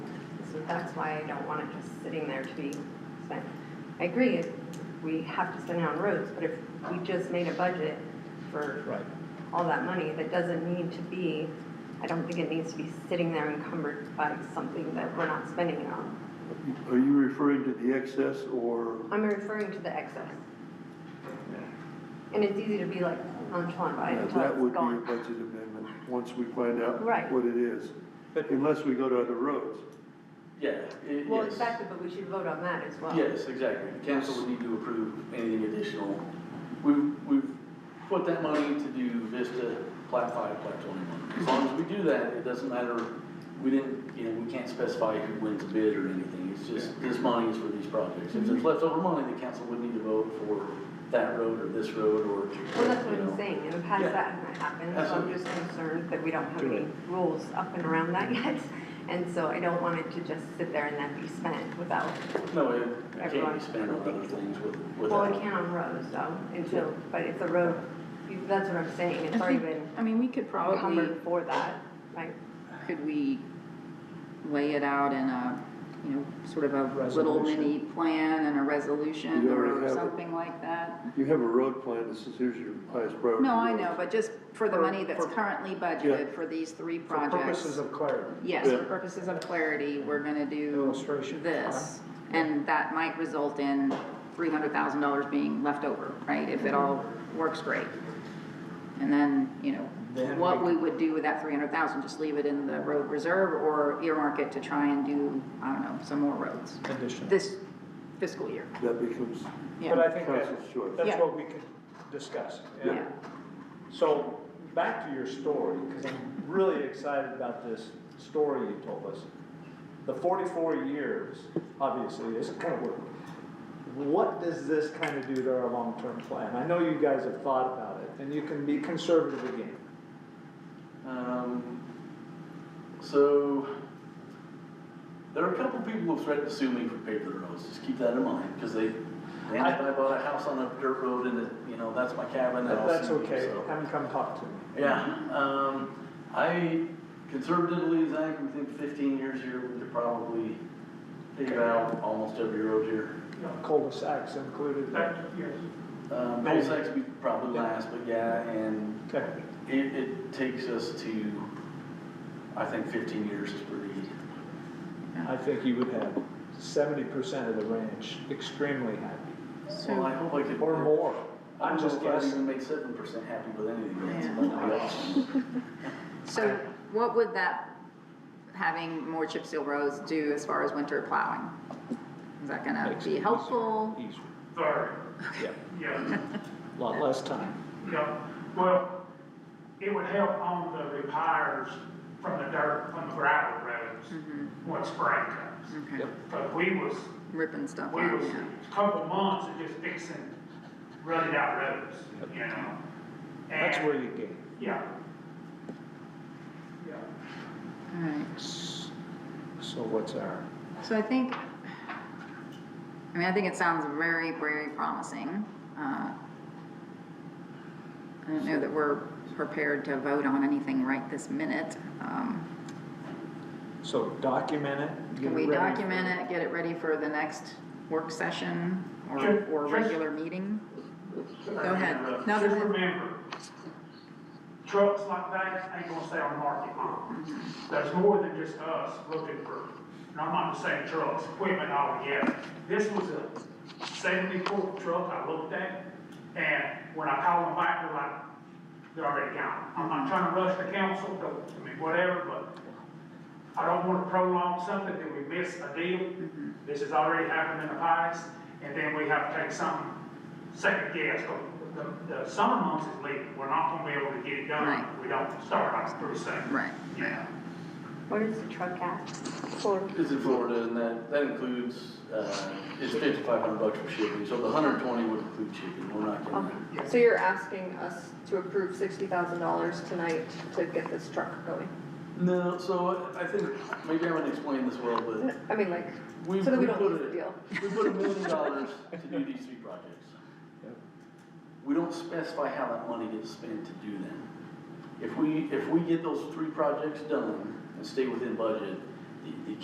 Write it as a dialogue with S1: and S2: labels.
S1: that's why I don't want it just sitting there to be spent. I agree, if we have to spend it on roads, but if we just made a budget for
S2: Right.
S1: all that money, that doesn't need to be, I don't think it needs to be sitting there encumbered by something that we're not spending it on.
S3: Are you referring to the excess or?
S1: I'm referring to the excess. And it's easy to be like nonchalant about it
S3: Yeah,
S1: until
S3: uh, That would
S1: it's
S3: be a
S1: gone.
S3: budget amendment, once we find out
S1: Right.
S3: what it is.
S2: But-
S3: Unless we go to other roads.
S4: Yeah, it,
S1: Well,
S4: yes.
S1: exactly, but we should vote on that as well.
S4: Yes, exactly. The council would need to approve anything additional. We've, we've put that money to do Vista, Plat Five, Plat Twenty-One. As long as we do that, it doesn't matter, we didn't, you know, we can't specify who wins a bid or anything. It's just, this money is for these projects. If
S1: Mhm.
S4: there's leftover money, the council would need to vote for that road or this road or.
S1: Well, that's what
S4: you know.
S1: I'm saying, in the past
S4: Yeah.
S1: that hasn't happened, so I'm
S4: Absolutely.
S1: just concerned that we don't have
S2: Too
S1: any
S2: late.
S1: rules up and around that yet. And so I don't want it to just sit there and then be spent without,
S4: No, it can't be
S1: Everyone's
S4: spent on other things with, with.
S1: well, it can on roads, so, until, but it's a road, you- that's what I'm saying, it's
S5: I
S1: already
S5: think-
S1: been
S5: I mean, we could probably,
S1: encumbered for that, right?
S5: could we lay it out in a, you know, sort of a little mini plan and a resolution
S3: You already
S5: or
S3: have it.
S5: something like that?
S3: You have a road plan, this is here's your highest priority.
S5: No, I know, but just for the
S2: For-
S5: money that's
S2: for-
S5: currently budgeted for these three
S2: For
S5: projects.
S2: purposes of clarity.
S5: Yes, for
S3: Yeah.
S5: purposes of clarity, we're gonna do
S2: Illustration.
S5: this. And that might result in three hundred thousand dollars being left over, right, if
S2: Mm-hmm.
S5: it all works great. And then, you know,
S2: Then
S5: what
S2: we-
S5: we would do with that three hundred thousand, just leave it in the road reserve or earmark it to try and do, I don't know, some more roads
S2: Condition.
S5: this fiscal year.
S3: That becomes,
S2: But I
S5: Yeah,
S2: think that,
S3: Council's choice.
S2: that's
S5: Yeah.
S2: what we could discuss. yeah.
S5: yeah,
S2: So, back to your story, because I'm really excited about this story you told us. The forty-four years, obviously, isn't gonna work. What does this kind of do to our long-term plan? I know you guys have thought about it, and you can be conservative again.
S4: Um, so, there are a couple people who threatened to sue me for paper roads, just keep that in mind, because they, they
S2: I-
S4: I bought a house on a dirt road and it, you know, that's my cabin, and
S2: But
S4: I'll
S2: that's
S4: sue you,
S2: okay,
S4: so.
S2: have them come talk to me.
S4: Yeah, um, I conservatively, Zach, we think fifteen years here, we could probably pave out almost every road here.
S2: You know, Cul-de-sacs included.
S4: Um,
S2: Maybe.
S4: cul-de-sacs would be probably last, but yeah, and
S2: Okay,
S4: It, it takes us to, I think fifteen years is pretty,
S2: I think you would have seventy percent of the ranch extremely happy,
S4: well, I hope I could.
S2: or more.
S4: I
S2: I'm
S4: don't know
S2: just
S4: if I'd
S2: guessing.
S4: even make seven percent happy with anything, that's
S5: Yeah.
S4: that'd be awesome.
S5: so what would that, having more chip seal roads do as far as winter plowing? Is that gonna
S2: Makes it
S5: be
S2: easier.
S5: helpful?
S2: Easier,
S6: Sorry,
S2: yeah,
S6: yeah,
S2: a lot less time.
S6: yeah, well, it would help on the repairs from the dirt, from the gravel roads when spring comes.
S5: Okay,
S6: But we was,
S5: ripping stuff
S6: we
S5: out,
S6: was
S5: yeah.
S6: a couple months of just fixing rutted out roads, you know?
S2: That's
S6: And-
S2: where you gain.
S6: Yeah. Yeah.
S5: All right.
S2: So what's our,
S5: So I think, I mean, I think it sounds very, very promising. Uh, I don't know that we're prepared to vote on anything right this minute. Um,
S2: so document it? get
S5: Can we
S2: it ready.
S5: document it, get it ready for the next work session or,
S6: Sure,
S5: or
S6: sure.
S5: regular meeting? Go ahead. No,
S6: Just
S5: this is-
S6: remember, trucks like that ain't gonna stay on the market long. There's more than just us looking for, and I'm not just saying trucks, equipment altogether. This was a seventy-four truck I looked at, and when I called them back, they're like, they're already gone. I'm not trying to rush the council, don't, I mean, whatever, but I don't wanna prolong something that we miss a deal.
S5: Mm-hmm.
S6: This has already happened in the past, and then we have to take something second guess, the, the summer months is leaving, we're not gonna be able to get it done
S5: Right.
S6: if we don't start on pretty soon.
S5: Right.
S6: Yeah.
S1: What is the truck at? For,
S4: It's in Florida, and that, that includes, uh, it's fifty-five hundred bucks for shipping, so the hundred and twenty would include shipping, we're not
S7: Okay,
S4: getting.
S7: so you're asking us to approve sixty thousand dollars tonight to get this truck going?
S4: No, so I think, maybe I haven't explained this well, but
S7: I mean, like,
S4: We,
S7: so that
S4: we
S7: we don't
S4: put
S7: lose the
S4: a,
S7: deal.
S4: we put a million dollars to do these three projects.
S2: Yep.
S4: We don't specify how that money gets spent to do them. If we, if we get those three projects done and stay within budget, the, the